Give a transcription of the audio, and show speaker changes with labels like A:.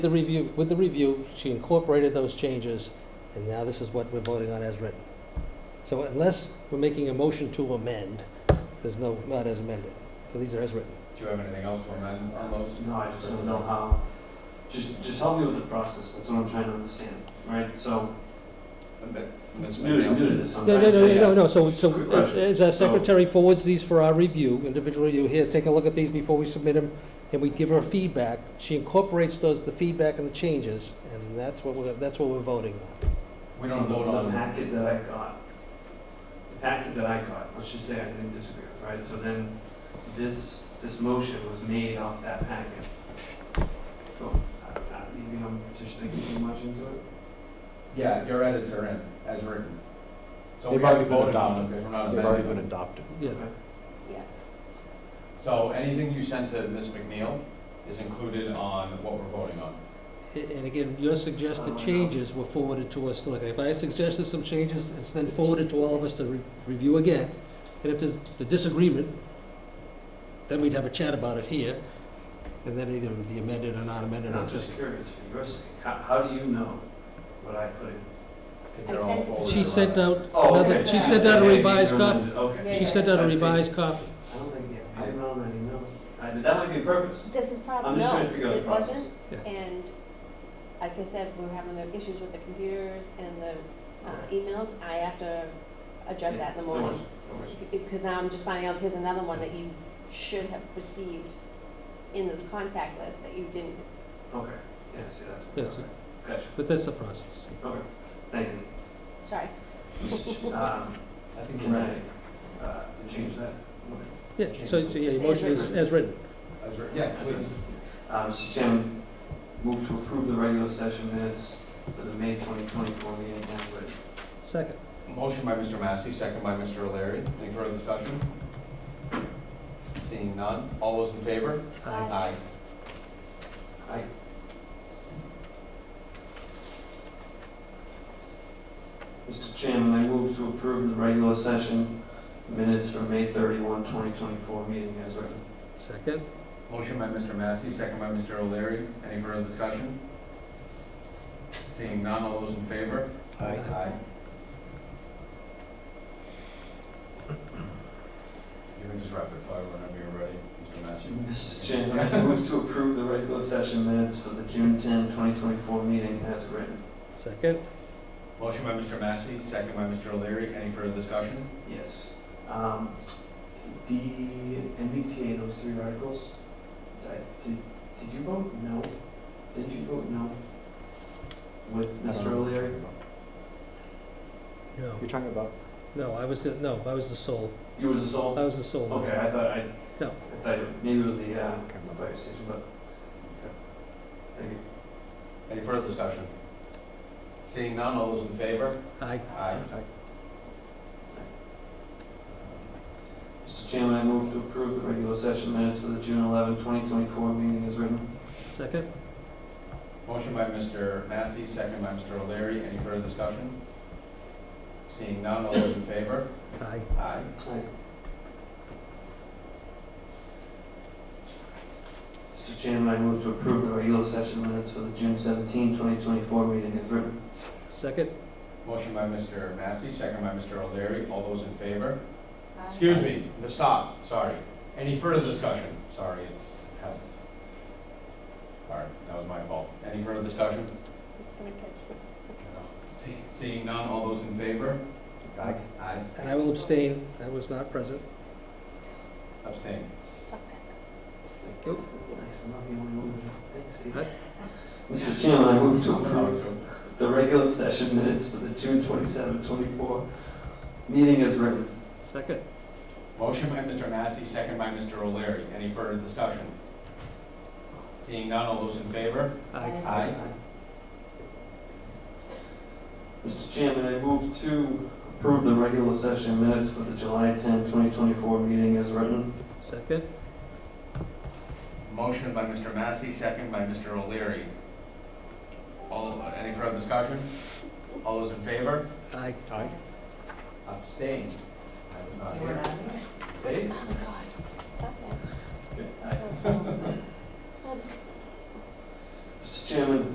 A: The review, with the review, she incorporated those changes, and now this is what we're voting on as written. So unless we're making a motion to amend, there's no, not as amended. So these are as written.
B: Do you have anything else for amend on those?
C: No, I just don't know how, just, just help me with the process, that's what I'm trying to understand, right? So, it's new, to- new to this, I'm
A: No,
C: trying
A: no,
C: to
A: no,
C: say.
A: no, no, so,
C: Quick
A: so
C: question.
A: as our
C: So-
A: secretary forwards these for our review, individual review, here, take a look at these before we submit them, and we give her feedback. She incorporates those, the feedback and the changes, and that's what we're, that's what we're voting on.
B: We don't
C: So
B: vote
C: the- The
B: on,
C: packet that I got, the packet that I got, let's just say I didn't disagree with, right? So then, this, this motion was made off that packet. So, I, I, maybe I'm just thinking too much into it?
B: yeah, your edits are in, as written. So
D: They've
B: we already
D: already been
B: voted on them, if we're not
D: They've already been
B: amending them.
D: adopted.
A: Yeah,
E: Yes.
B: So anything you sent to Ms. McNeil is included on what we're voting on.
A: A- and again, your suggested
C: Oh, I know.
A: changes were forwarded to us, like, if I suggested some changes, it's then forwarded to all of us to re- review again. And if there's the disagreement, then we'd have a chat about it here, and then either it would be amended or not amended
C: And
A: or
C: I'm
A: just.
C: just curious, for your sake, how, how do you know what I put in?
B: 'cause
E: I
B: they're all
E: sent-
B: forwarded
A: She
B: around.
A: sent out
C: Oh, okay.
A: another, she
E: Yeah.
A: sent out a
C: Okay,
A: revised
C: these are
A: copy,
C: amended, Okay.
A: she
E: Yeah,
A: sent out a
C: I see.
A: revised copy.
C: I don't think, it- I don't know that email. I, that might be a purpose.
E: This is
C: I'm
E: probably,
C: just
E: Uh, no,
C: trying to figure out the
E: it
C: process.
E: wasn't.
A: Yeah.
E: And like I said, we we're having the issues with the computers and the uh,
C: Alright.
E: emails. I have to address that in the
C: No worries,
E: morning.
C: no worries.
E: Because now I'm just finding out here's another one that you should have received in this contact list that you didn't.
C: Okay, yeah, see, that's.
A: Yes, sir.
C: okay. Gotcha,
A: But that's the process.
C: okay, thank you.
E: Sorry.
C: Um,
B: I think
C: can
B: you're
C: I,
B: right,
C: uh, change that? motion?
A: Yeah, so, so, yeah, your
E: Just
A: motion
E: as
A: is as written.
B: as written, yeah, please.
C: Uh, Mr. Chairman, move to approve the regular session minutes for the May twenty twenty-four meeting, as written.
A: Second.
B: Motion by Mr. Massey, second by Mr. O'Leary. Any further discussion? Seeing none, all those in favor?
E: Aye.
B: Aye.
C: I, Mr. Chairman, I move to approve the regular session minutes for May thirty-one, twenty twenty-four meeting, as written.
A: Second.
B: Motion by Mr. Massey, second by Mr. O'Leary. Any further discussion? Seeing none, all those in favor? Aye. You can just rapid fire whenever you're ready, Mr. Massey.
C: Mr. Chairman, I move to approve the regular session minutes for the June 10, 2024 meeting as written.
A: Second.
B: Motion by Mr. Massey, second by Mr. O'Leary. Any further discussion?
C: Yes. Um, The MBTA, those three articles, uh, did did you vote no? Didn't you vote no? With Mr. O'Leary?
A: No,
D: You're talking about,
A: no, I was, the- no, I was the sole,
C: You were the sole?
A: I was the sole.
C: Okay, I thought I,
A: No.
C: I thought it- maybe it was the uh,
D: I can't remember.
C: fire station, but, okay. Thank you.
B: Any further discussion? Seeing none, all those in favor?
A: I,
B: Aye.
C: Mr. Chairman, I move to approve the regular session minutes for the June 11, 2024 meeting as written.
A: second.
B: Motion by Mr. Massey, second by Mr. O'Leary. Any further discussion? Seeing none, all those in favor?
A: Aye.
B: Aye.
C: Aye. Mr. Chairman, I move to approve the regular session minutes for the June 17, 2024 meeting as written.
A: Second.
B: Motion by Mr. Massey, second by Mr. O'Leary. All those in favor? Excuse me, no, stop, sorry. Any further discussion? Sorry, it's, has, all right, that was my fault. Any further discussion?
E: It's gonna catch.
B: See- Seeing none, all those in favor?
D: Aye.
B: Aye.
A: And I will abstain, I was not present.
B: Abstain.
E: Talk faster.
A: Thank you.
C: Nice, I'm not the only one. Thanks, Steve.
A: Aye.
C: Mr. Chairman, I move to approve
B: Opposed?
C: the regular session minutes for the June 27, 24 meeting as written.
A: Second.
B: Motion by Mr. Massey, second by Mr. O'Leary. Any further discussion? Seeing none, all those in favor?
A: Aye.
B: Aye.
C: Mr. Chairman, I move to approve the regular session minutes for the July 10, 2024 meeting as written.
A: Second.
B: Motion by Mr. Massey, second by Mr. O'Leary. All, uh, any further discussion? All those in favor?
A: Aye.
D: Aye.
B: Abstain. I was not
E: You were
B: here.
E: not here.
B: Stays?
E: Oh, my God. Stop that.
C: Aye.
E: Oh, oh. Abstain.
C: Mr. Chairman,